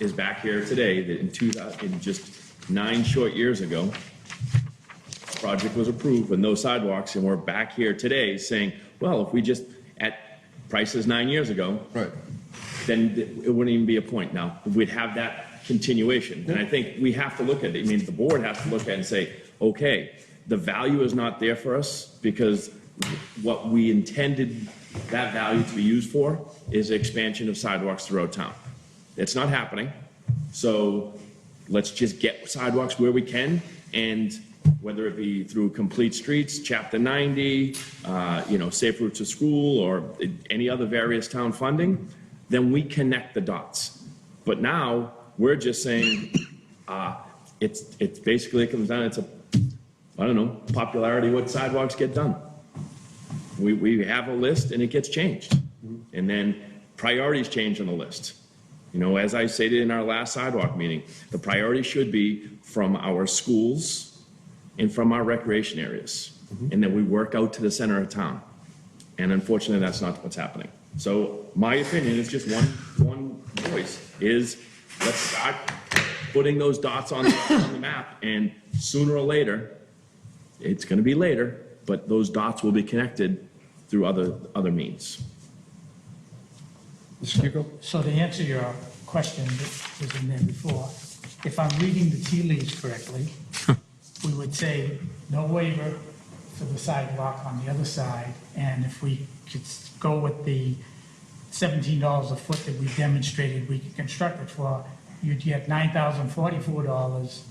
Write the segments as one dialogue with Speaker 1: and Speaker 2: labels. Speaker 1: is back here today that in two thousand, in just nine short years ago, project was approved with no sidewalks, and we're back here today saying, well, if we just, at prices nine years ago,
Speaker 2: Right.
Speaker 1: then th- it wouldn't even be a point now. We'd have that continuation. And I think we have to look at it. I mean, the board has to look at it and say, okay, the value is not there for us because what we intended that value to be used for is the expansion of sidewalks throughout town. It's not happening. So let's just get sidewalks where we can and whether it be through complete streets, chapter 90, uh, you know, safe routes to school or any other various town funding, then we connect the dots. But now we're just saying, uh, it's, it's basically it comes down, it's a, I don't know, popularity, what sidewalks get done. We, we have a list and it gets changed. And then priorities change on the list. You know, as I stated in our last sidewalk meeting, the priority should be from our schools and from our recreation areas. And then we work out to the center of town. And unfortunately, that's not what's happening. So my opinion is just one, one voice is let's start putting those dots on, on the map and sooner or later, it's going to be later, but those dots will be connected through other, other means.
Speaker 2: Mr. Kiko?
Speaker 3: So to answer your question that was in there before, if I'm reading the tea leaves correctly, we would say no waiver for the sidewalk on the other side, and if we could s- go with the seventeen dollars a foot that we demonstrated we could construct it for, you'd get nine thousand forty-four dollars,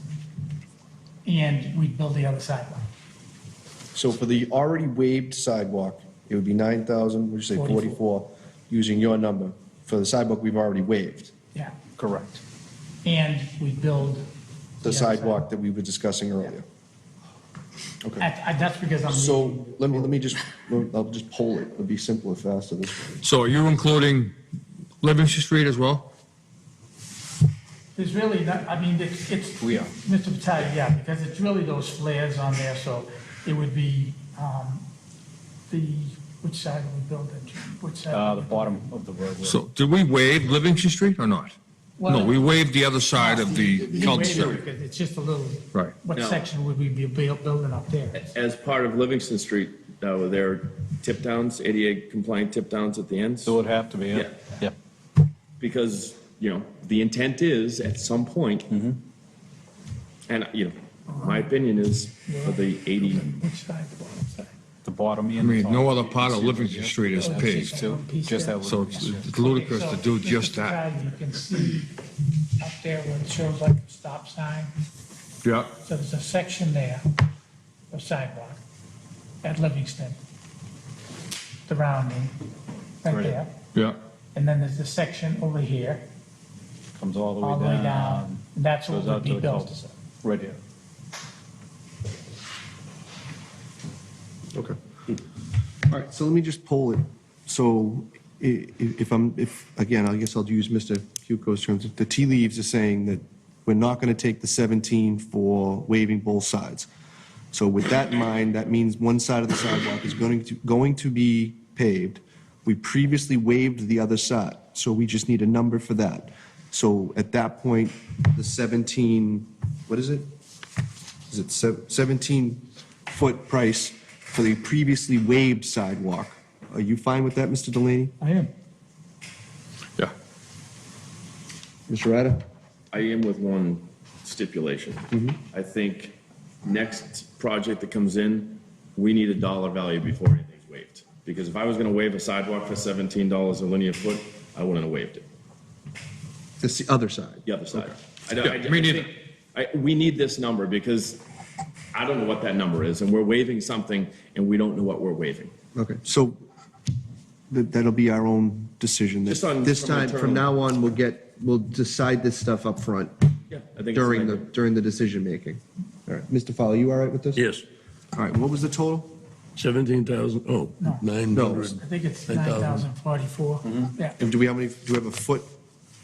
Speaker 3: and we'd build the other sidewalk.
Speaker 2: So for the already waived sidewalk, it would be 9,000, would you say 44, using your number, for the sidewalk we've already waived?
Speaker 3: Yeah,
Speaker 2: Correct.
Speaker 3: and we'd build.
Speaker 2: The
Speaker 3: other
Speaker 2: sidewalk that we were discussing earlier. Okay.
Speaker 3: I- I- That's because I'm. reading-
Speaker 2: So let me, let me just, I'll just poll it. It'll be simpler, faster this way.
Speaker 4: So are you including Livingston Street as well?
Speaker 3: There's really not, I mean, it's, it's.
Speaker 2: We are.
Speaker 3: Mr. Vitale, yeah, because it's really those flares on there, so it would be, um, the, which side of the building, which
Speaker 5: uh,
Speaker 3: side?
Speaker 5: the bottom of the roadway.
Speaker 4: So did we waive Livingston Street or not? No, we waived the other side of the
Speaker 3: He waited
Speaker 4: cul-de-sac.
Speaker 3: because It's just a little.
Speaker 4: Right.
Speaker 3: What
Speaker 1: No.
Speaker 3: section would we be buil- building up there?
Speaker 1: As part of Livingston Street, uh, there are tip downs, ADA compliant tip downs at the ends.
Speaker 5: It would have to be, yeah.
Speaker 1: Yeah.
Speaker 5: Yeah.
Speaker 1: because, you know, the intent is at some point,
Speaker 5: Mm-hmm.
Speaker 1: and, you know, my opinion is for the 80,
Speaker 3: Which side, the bottom side?
Speaker 5: The bottom end.
Speaker 4: I mean, no other part of Livingston Street is paved,
Speaker 5: Too, just that.
Speaker 4: so
Speaker 5: little
Speaker 4: it's
Speaker 5: piece, yeah.
Speaker 4: it's ludicrous to do
Speaker 3: So,
Speaker 4: just
Speaker 3: Mr.
Speaker 4: that.
Speaker 3: Vitale, You can see up there where it shows like a stop sign.
Speaker 4: Yeah,
Speaker 3: So there's a section there of sidewalk at Livingston, the rounding, right
Speaker 5: Right.
Speaker 3: there.
Speaker 4: yeah.
Speaker 3: And then there's the section over here,
Speaker 5: Comes all the
Speaker 3: all the
Speaker 5: way
Speaker 3: way down.
Speaker 5: down.
Speaker 3: And that's what
Speaker 5: Goes
Speaker 3: would
Speaker 5: out
Speaker 3: be
Speaker 5: to the
Speaker 3: built.
Speaker 5: cul-de-sac. Right here.
Speaker 2: Okay. All right, so let me just poll it. So i- i- if I'm, if, again, I guess I'll use Mr. Cuco's terms. The tea leaves are saying that we're not going to take the 17 for waiving both sides. So with that in mind, that means one side of the sidewalk is going to, going to be paved. We previously waived the other side, so we just need a number for that. So at that point, the 17, what is it? is it sev- 17-foot price for the previously waived sidewalk. Are you fine with that, Mr. Delaney?
Speaker 3: I am.
Speaker 4: Yeah.
Speaker 2: Mr. Ryder?
Speaker 1: I am with one stipulation.
Speaker 4: Mm-hmm.
Speaker 1: I think next project that comes in, we need a dollar value before anything's waived. Because if I was gonna waive a sidewalk for seventeen dollars a linear foot, I wouldn't have waived it.
Speaker 2: That's the other side.
Speaker 1: the other side. I don't- I-
Speaker 4: Yeah, me
Speaker 1: I
Speaker 4: neither.
Speaker 1: think- I, we need this number because I don't know what that number is, and we're waiving something, and we don't know what we're waiving.
Speaker 2: Okay, so th- that'll be our own decision.
Speaker 1: Just on-
Speaker 2: This
Speaker 1: from
Speaker 2: time,
Speaker 1: internal-
Speaker 2: from now on, we'll get, we'll decide this stuff up front
Speaker 1: Yeah, I think it's
Speaker 2: during the,
Speaker 1: like-
Speaker 2: during the decision-making. All right, Mr. Fowler, you all right with this?
Speaker 6: Yes,
Speaker 2: All right, what was the total?
Speaker 6: 17,000, oh,
Speaker 3: No.
Speaker 6: 900.
Speaker 3: I think it's
Speaker 6: 9,000.
Speaker 3: 9,044.
Speaker 5: Mm-hmm.
Speaker 3: Yeah.
Speaker 2: And do we have any, do we have a foot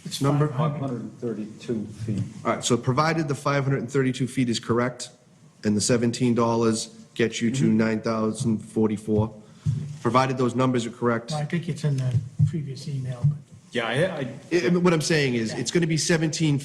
Speaker 3: It's
Speaker 2: number?
Speaker 3: 500.
Speaker 5: 532 feet.
Speaker 2: All right, so provided the 532 feet is correct, and the $17 gets you to 9,044, provided those numbers are correct,
Speaker 3: Well, I think it's in the previous email, but
Speaker 5: Yeah, I, I
Speaker 2: I- I mean, What I'm saying is, it's going to be 17